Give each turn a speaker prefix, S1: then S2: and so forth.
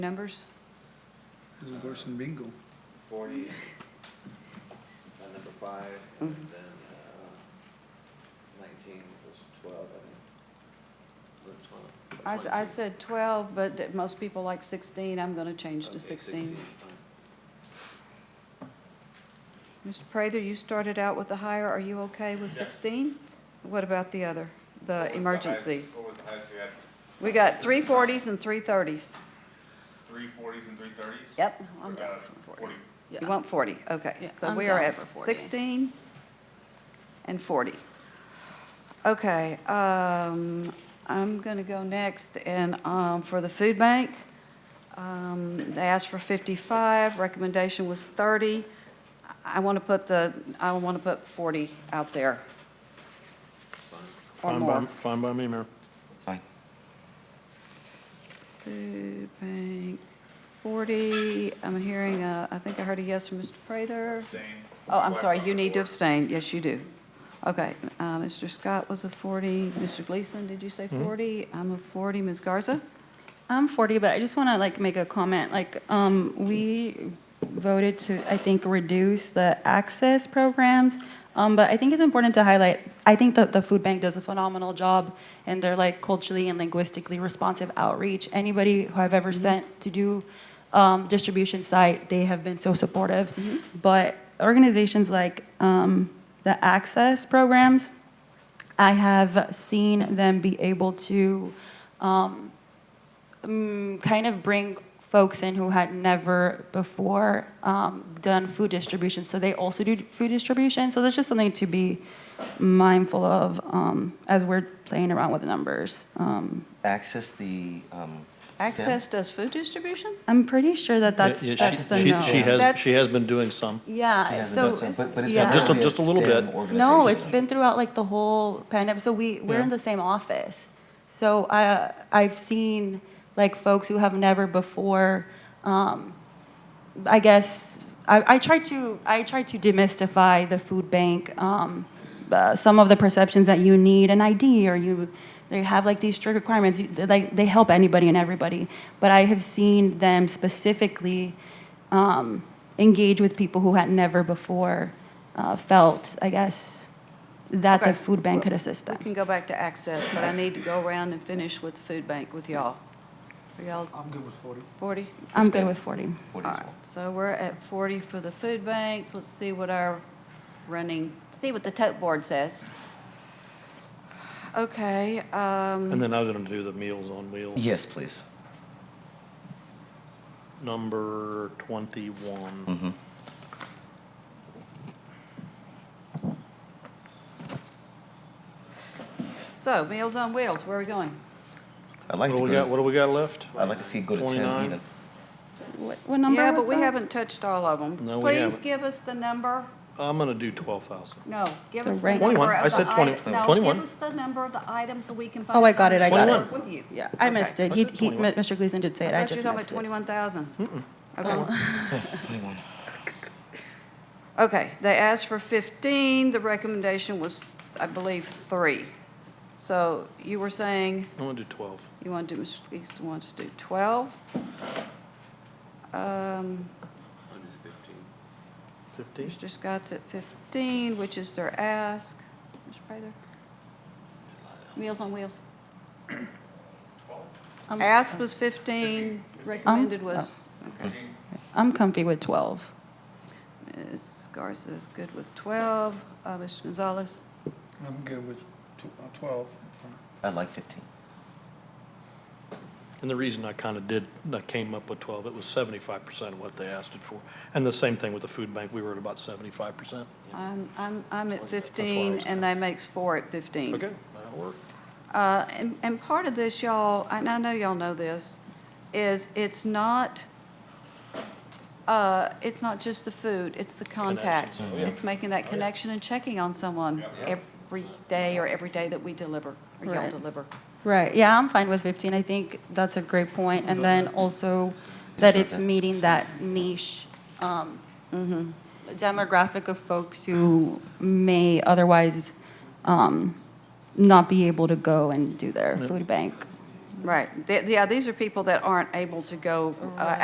S1: Numbers?
S2: This is worse than bingo.
S3: forty, uh, number five,
S4: Mm-hmm.
S3: and then, uh, nineteen was twelve, I think. Or twelve.
S1: I, s- I
S3: 22.
S1: said 12, but th- most people like 16. I'm going to change
S3: Okay,
S1: to 16.
S3: 's fine.
S1: Mr. Prather, you started out with the higher. Are you okay with
S5: Yes.
S1: 16? What about the other, the emergency?
S5: What was the highest we had?
S1: We got 340s and 330s.
S5: Three forties and three thirties?
S1: Yep.
S5: We're
S1: I'm
S5: about
S1: down
S5: at
S1: for 40.
S5: forty.
S1: You want 40, okay.
S4: Yeah,
S1: So
S4: I'm
S1: we are
S4: down
S1: at
S4: for 40.
S1: 16 and 40. Okay, um, I'm going to go next, and um, for the food bank, um, they asked for 55, recommendation was 30. I want to put the, I want to put 40 out there or
S6: Fine by,
S1: more.
S6: fine by me, Mayor.
S1: Food bank, 40, I'm hearing, a- I think I heard a yes from Mr. Prather.
S5: Abstain.
S1: Oh, I'm
S5: Blacks
S1: sorry,
S5: on
S1: you
S5: the
S1: need to
S5: board.
S1: abstain, yes, you do. Okay, uh, Mr. Scott was a 40, Mr. Gleason, did you say 40? I'm a 40, Ms. Garza?
S4: I'm 40, but I just want to like make a comment, like, um, we voted to, I think, reduce the access programs, um, but I think it's important to highlight, I think that the food bank does a phenomenal job, and they're like culturally and linguistically responsive outreach. Anybody who I've ever sent to do, um, distribution site, they have been so supportive. But organizations like, um, the access programs, I have seen them be able to, um, um, kind of bring folks in who had never before um, done food distribution. So they also do food distribution. So that's just something to be mindful of um, as we're playing around with numbers. Um,
S7: access the, um.
S1: Access does food distribution?
S4: I'm pretty sure that that's,
S6: Yeah, she-
S4: that's the
S6: she-
S4: no.
S6: She has, she has
S1: That's-
S6: been doing some.
S4: yeah. So yeah.
S6: Just a- just a little bit.
S4: No, it's been throughout like the whole pandemic. So we, we're in
S6: Yeah.
S4: the same office. So I, I've seen like folks who have never before, um, I guess, I, I try to, I try to demystify the food bank, um, uh, some of the perceptions that you need an ID or you, they have like these strict requirements, You- they- like, they help anybody and everybody. But I have seen them specifically, um, engage with people who had never before uh, felt, I guess, that
S1: Okay.
S4: the food bank could assist
S1: We
S4: them.
S1: can go back to access, but I need to go around and finish with the food bank with y'all. Are y'all
S2: I'm good with forty.
S1: 40?
S4: I'm good with 40.
S1: All right, so we're at 40 for the food bank. Let's see what our running, see what the tote board says. Okay, um,
S6: And then I was going to do the Meals on Wheels.
S7: Yes, please.
S6: Number 21.
S7: Mhm.
S1: so Meals on Wheels, where are we going?
S7: I'd
S6: What
S7: like
S6: do
S7: to
S6: we got,
S7: go,
S6: what do we got left?
S7: to- I'd like to see it go to ten
S6: 29?
S7: even.
S4: What, what number
S1: Yeah,
S4: was
S1: but we
S4: that?
S1: haven't touched all of them.
S6: No, we
S1: Please
S6: haven't.
S1: give us the number,
S6: I'm going to do 12,000.
S1: no, give
S4: The
S1: us the
S4: rank.
S1: number of the
S6: 21. I said uh, 20.
S1: item- no,
S6: 21.
S1: give us the number of the item so we can find.
S4: Oh, I got it, I got
S1: out
S6: it.
S1: With you.
S4: Yeah, I missed it. He, he, Mr. Gleason did say it, I
S1: I thought you were
S4: just
S1: talking about
S4: missed it. Oh.
S1: 21,000. Okay.
S7: Twenty-one.
S1: Okay, they asked for 15, the recommendation was, I believe, three. So you were saying
S6: I'm going to do 12.
S1: you want to do, Mr. Gleason wants to do 12? Um,
S3: Mine is fifteen.
S1: Mr.
S6: 15?
S1: Scott's at 15, which is their ask. Mr. Prather? Meals on Wheels.
S6: Um,
S4: I'm-
S1: Ask was 15,
S6: uh,
S1: recommended was, okay.
S4: I'm comfy with 12.
S1: Ms. Garza's good with 12. Uh, Mr. Gonzalez?
S2: I'm good with tw- uh, twelve. It's fine.
S7: I'd like fifteen.
S6: And the reason I kind of did, I came up with 12, it was 75% of what they asked it for. And the same thing with the food bank, we were at about 75%.
S1: I'm, I'm, I'm at
S6: That's why I
S1: 15,
S6: was-
S1: and that makes four at 15.
S6: Okay, that'll work.
S1: Uh, And, and part of this, y'all, and I know y'all know this, is it's not, uh, it's not just the food, it's the contact.
S6: Connections,
S1: It's making that connection and checking on someone every day or every day that we deliver, or y'all
S4: Right. Mm-hmm.
S1: deliver.
S4: Right, yeah, I'm fine with 15. I think that's a great point. And then also that it's meeting that niche um, demographic of folks who may otherwise um, not be able to go and do their food bank.
S1: Right. Th- Yeah, these are people that aren't able to go uh,